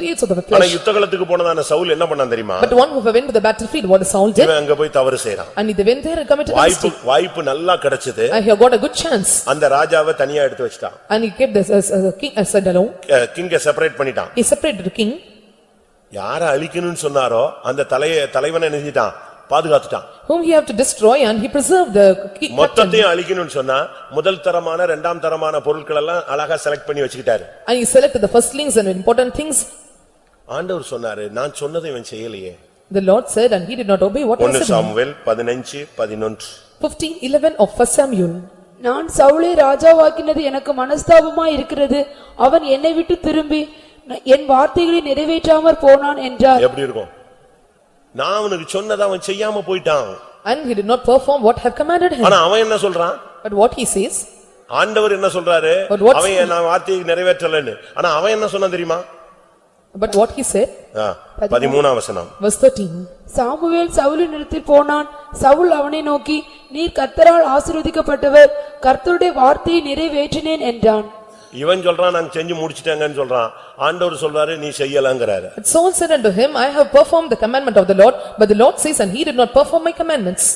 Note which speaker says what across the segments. Speaker 1: creates of the
Speaker 2: ஆனா
Speaker 1: flesh.
Speaker 2: யுத்த காலத்துக்கு போனதான சவுல் என்ன பண்ணான் தெரியுமா
Speaker 1: But one who went to the battlefield, what Saul did,
Speaker 2: இவன் அங்க போய் தவறு செய்றான்
Speaker 1: and he went there and committed a
Speaker 2: வாய்ப்பு
Speaker 1: mistake.
Speaker 2: வாய்ப்பு நல்லா கிடைச்சது
Speaker 1: And he got a good chance,
Speaker 2: அந்த ராஜாவை தனியா எடுத்து வச்சிட்டான்
Speaker 1: and he kept this as a king as alone.
Speaker 2: கிங்க செப்பரேட் பண்ணிட்டான்
Speaker 1: He separated the king,
Speaker 2: யார அழிக்கணும்னு சொன்னாரோ அந்த தலைய தலைவனை நினைச்சிட்டான் பாதுகாத்துட்டான்
Speaker 1: whom he had to destroy, and he preserved the king. captain.
Speaker 2: மொத்தத்தையும் அழிக்கணும்னு சொன்னா முதல் தரமான இரண்டாம் தரமான பொருட்கள் எல்லாம் அழகா செலக்ட் பண்ணி வச்சுக்கிட்டாரு
Speaker 1: And he selected the firstlings and important things.
Speaker 2: ஆண்டவர் சொன்னாரு நான் சொன்னதை இவன் செய்யலையே
Speaker 1: The Lord said, and he did not obey what
Speaker 2: ஒன்னு
Speaker 1: was said.
Speaker 2: சாமுவேல் பதினஞ்சு பதினொன்று
Speaker 1: Fifteen eleven of first Samuel.
Speaker 3: நான் சவுளை ராஜாவாக்கினது எனக்கு மனஸ்தாபமாய் இருக்கிறது அவன் என்னை விட்டு திரும்பி ந- என் வார்த்தைகளை நிறைவேற்றாமற் போனான் என்றார்
Speaker 2: எப்படி இருக்கும் நான் அவனுக்கு சொன்னதை அவன் செய்யாம போயிட்டான்
Speaker 1: And he did not perform what have commanded him.
Speaker 2: ஆனா அவன் என்ன சொல்றான்
Speaker 1: But what he says,
Speaker 2: ஆண்டவர் என்ன சொல்றாரு
Speaker 1: But what's-
Speaker 2: அவன் என் நான் வார்த்தையை நிறைவேற்றலன்னு ஆனா அவன் என்ன சொன்னான் தெரியுமா
Speaker 1: but what he said,
Speaker 2: ஆ, பதிமூணாம் வசனம்
Speaker 1: verse thirteen.
Speaker 3: சாமுவேல் சவுலின் நிலத்தில் போனான் சவுல் அவனை நோக்கி நீர் கர்த்தரால் ஆசீர்வதிக்கப்பட்டவர் கர்த்தருடைய வார்த்தையை நிறைவேற்றினேன் என்றான்
Speaker 2: இவன் சொல்றான் நான் செஞ்சு முடிச்சிட்டேங்கன்னு சொல்றான் ஆண்டவர் சொல்றாரு நீ செய்யலங்கிறாரு
Speaker 1: But Saul said unto him, I have performed the commandment of the Lord, but the Lord says, and he did not perform my commandments.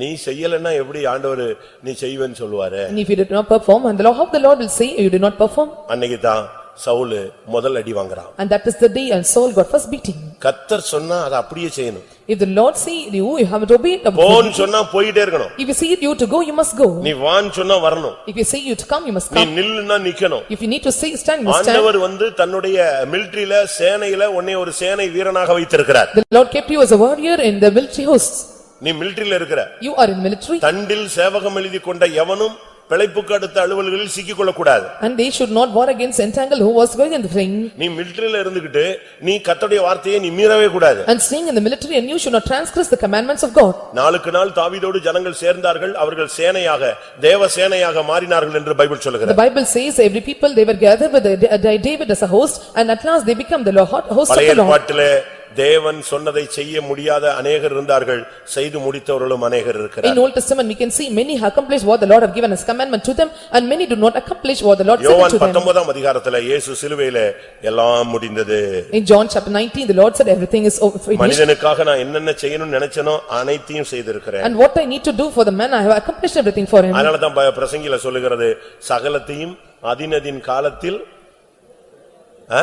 Speaker 2: நீ செய்யலன்னா எப்படி ஆண்டவர் நீ செய்வேன்னு சொல்லுவாரு
Speaker 1: And if you did not perform, and the Lord, how the Lord will say, you did not perform?
Speaker 2: அன்னைக்கு தான் சவுல் முதல் அடி வாங்குறான்
Speaker 1: And that is the day and Saul got first beating.
Speaker 2: கத்தர் சொன்னா அதை அப்படியே செய்யணும்
Speaker 1: If the Lord say you, you haven't obeyed.
Speaker 2: போன்னு சொன்னா போயிட்டே இருக்கணும்
Speaker 1: If you say you to go, you must go.
Speaker 2: நீ வான்னு சொன்னா வரணும்
Speaker 1: If you say you to come, you must
Speaker 2: நீ
Speaker 1: come.
Speaker 2: நில்லுன்னா நிக்கணும்
Speaker 1: If you need to say stand, you must stand.
Speaker 2: ஆண்டவர் வந்து தன்னுடைய மிலிட்டரியில சேனையில உன்னை ஒரு சேனை வீரனாக வைத்திருக்கிறார்
Speaker 1: The Lord kept you as a warrior in the military hosts.
Speaker 2: நீ மிலிட்டரியில இருக்கிற
Speaker 1: You are in military
Speaker 2: தண்டில் சேவகம் எழுதி கொண்ட எவனும் பிழைப்புக்கு அடுத்த அலுவல்களில் சிக்கிக்கொள்ளக் கூடாது
Speaker 1: and they should not war against entangle who was going in the ring.
Speaker 2: நீ மிலிட்டரியில இருந்துகிட்டு நீ கத்தோடைய வார்த்தையை நீ மீறவே கூடாது
Speaker 1: And staying in the military and you should not transgress the commandments of God.
Speaker 2: நாளுக்கு நாள் தாவீதோடு ஜனங்கள் சேர்ந்தார்கள் அவர்கள் சேனையாக தேவ சேனையாக மாறினார்கள் என்று பைபிள்
Speaker 1: The
Speaker 2: சொல்லுகிறது
Speaker 1: Bible says every people they were gathered with the- the- David as a host and at last they become the Lord- host of
Speaker 2: பழைய
Speaker 1: the Lord.
Speaker 2: ஏற்பாட்டிலே தேவன் சொன்னதை செய்ய முடியாத அநேகர் இருந்தார்கள் செய்து முடித்தவர்களும் அநேகர்
Speaker 1: In
Speaker 2: இருக்கிறார்
Speaker 1: Old Testament, we can see many accomplished what the Lord have given as commandment to them and many do not accomplish what the Lord said
Speaker 2: யோவான்
Speaker 1: to them.
Speaker 2: பத்தொன்பதாம் அதிகாரத்திலே இயேசு சிலுவையிலே எல்லாம் முடிந்தது
Speaker 1: In John chapter nineteen, the Lord said everything is over- finished
Speaker 2: மனிதனுக்காக நான் என்னென்ன செய்யணும்னு நினைச்சனோ அனைத்தையும் செய்திருக்கிறேன்
Speaker 1: and what I need to do for the man, I have accomplished everything for him.
Speaker 2: அதனாலதான் ப- பிரசங்கில சொல்லுகிறது சகலத்தையும் அதினதின் காலத்தில் ஆ?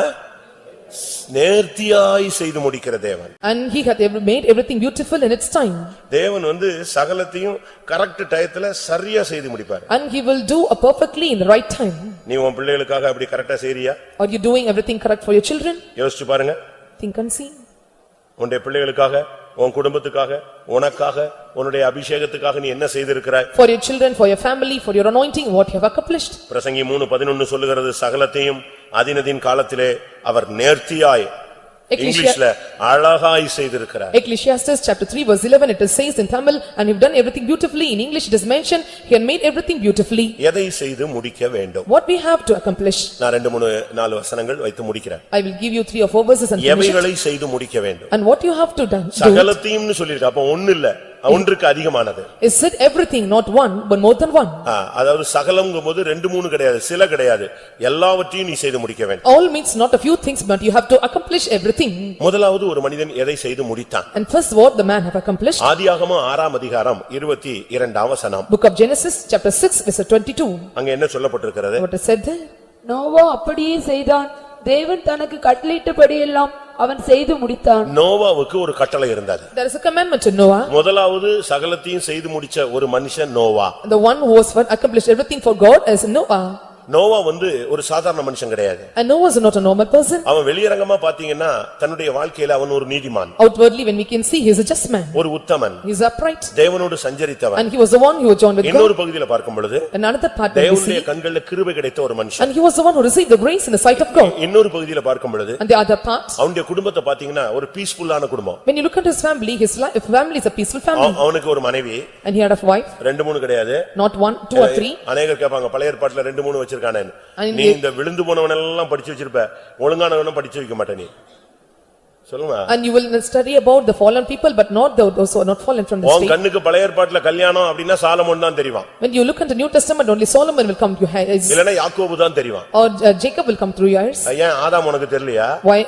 Speaker 2: நேர்த்தியாய் செய்து முடிக்கிற தேவன்
Speaker 1: And he hath ev- made everything beautiful in its time.
Speaker 2: தேவன் வந்து சகலத்தையும் கரெக்ட் டயத்துல சரியா செய்து முடிப்பார்
Speaker 1: And he will do a perfectly in the right time.
Speaker 2: நீ உன் பிள்ளைகளுக்காக அப்படி கரெக்டா செய்றியா
Speaker 1: Are you doing everything correct for your children?
Speaker 2: யோசிச்சு பாருங்க
Speaker 1: Think and see.
Speaker 2: உன்னுடைய பிள்ளைகளுக்காக உன் குடும்பத்துக்காக உனக்காக உன்னுடைய அபிஷேகத்துக்காக நீ என்ன செய்திருக்கிறாய்
Speaker 1: For your children, for your family, for your anointing, what you have accomplished.
Speaker 2: பிரசங்கி மூணு பதினொன்னு சொல்லுகிறது சகலத்தையும் அதினதின் காலத்திலே அவர் நேர்த்தியாய் இங்கிலீஷ்ல அழகாய் செய்திருக்கிறார்
Speaker 1: Ecclesiastes chapter three verse eleven, it is says in Tamil, and you've done everything beautifully. In English, it is mentioned, he had made everything beautifully.
Speaker 2: எதை செய்து முடிக்க வேண்டும்
Speaker 1: What we have to accomplish,
Speaker 2: நான் ரெண்டு மூணு நாலு வசனங்கள் வைத்து முடிக்கிறேன்
Speaker 1: I will give you three or four verses and finish it.
Speaker 2: எவைகளை செய்து முடிக்க வேண்டும்
Speaker 1: And what you have to done, do
Speaker 2: சகலத்தையும்னு சொல்லியிருக்க அப்ப ஒண்ணு இல்ல ஒன்றுக்கு அதிகமானது
Speaker 1: is said everything, not one, but more than one.
Speaker 2: ஆ, அதாவது சகலம்ங்கும்போது ரெண்டு மூணு கிடையாது சில கிடையாது எல்லாவற்றையும் நீ செய்து முடிக்க வேண்டும்
Speaker 1: All means not a few things, but you have to accomplish everything.
Speaker 2: முதலாவது ஒரு மனிதன் எதை செய்து முடித்தான்
Speaker 1: And first what the man have accomplished,
Speaker 2: Ah. ஆதியாகமம் ஆறாம் அதிகாரம் இருபத்தி இரண்டாம் வசனம்
Speaker 1: book of Genesis, chapter six, verse twenty-two,
Speaker 2: அங்க என்ன சொல்லப்பட்டிருக்கிறது
Speaker 1: what is said there.
Speaker 3: Noah அப்படியே செய்தான் தேவன் தனக்கு கட்டளையிட்டபடியெல்லாம் அவன் செய்து முடித்தான்
Speaker 2: நோவாவுக்கு ஒரு கட்டளை இருந்தது
Speaker 1: There is a commandment to Noah,
Speaker 2: முதலாவது சகலத்தையும் செய்து முடிச்ச ஒரு மனுஷன் Noah
Speaker 1: the one who was what accomplished everything for God is Noah.
Speaker 2: Noah வந்து ஒரு சாதாரண மனுஷன் கிடையாது
Speaker 1: And Noah is not a normal person.
Speaker 2: அவன் வெளியரங்கமா பாத்தீங்கன்னா தன்னுடைய வாழ்க்கையில அவன் ஒரு நீதிமான்
Speaker 1: Outwardly, when we can see, he is a just man,
Speaker 2: ஒரு உத்தமன்
Speaker 1: he is upright,
Speaker 2: தேவனோடு சஞ்சரித்தவன்
Speaker 1: and he was the one who was joined with God.
Speaker 2: இன்னொரு பகுதியில பார்க்கும் பொழுது
Speaker 1: Another part we
Speaker 2: தேவனுடைய
Speaker 1: see,
Speaker 2: கண்கள்ல கிருபை கிடைத்த ஒரு மனுஷன்
Speaker 1: and he was the one who received the grace in the sight of God.
Speaker 2: இன்னொரு பகுதியில பார்க்கும் பொழுது
Speaker 1: And the other part,
Speaker 2: அவனுடைய குடும்பத்தை பாத்தீங்கன்னா ஒரு பீஸ்ஃபுல்லான குடும்பம்
Speaker 1: when you look at his family, his li- family is a peaceful
Speaker 2: அவ-
Speaker 1: family,
Speaker 2: அவனுக்கு ஒரு மனைவி
Speaker 1: and he had a wife,
Speaker 2: ரெண்டு மூணு கிடையாது
Speaker 1: not one, two or three.
Speaker 2: அநேகர் கேட்பாங்க பழைய ஏற்பாட்டுல ரெண்டு மூணு வச்சிருக்கானேன்னு
Speaker 1: And
Speaker 2: நீ இந்த விழுந்து போனவனெல்லாம் படிச்சு வச்சிருப்ப ஒழுங்கானவனும் படிச்சு வைக்க மாட்ட நீ சொல்லுங்க
Speaker 1: And you will study about the fallen people but not tho- those who are not fallen from the
Speaker 2: உன்
Speaker 1: state.
Speaker 2: கண்ணுக்கு பழைய ஏற்பாட்டுல கல்யாணம் அப்படின்னா சாலமோன் தான் தெரியும்
Speaker 1: When you look into New Testament, only Solomon will come to your eyes
Speaker 2: இல்லன்னா யாக்கோபு தான் தெரியும்
Speaker 1: or uh, Jacob will come through your eyes.
Speaker 2: ஏன் ஆதாம் உனக்கு தெரியலையா
Speaker 1: Why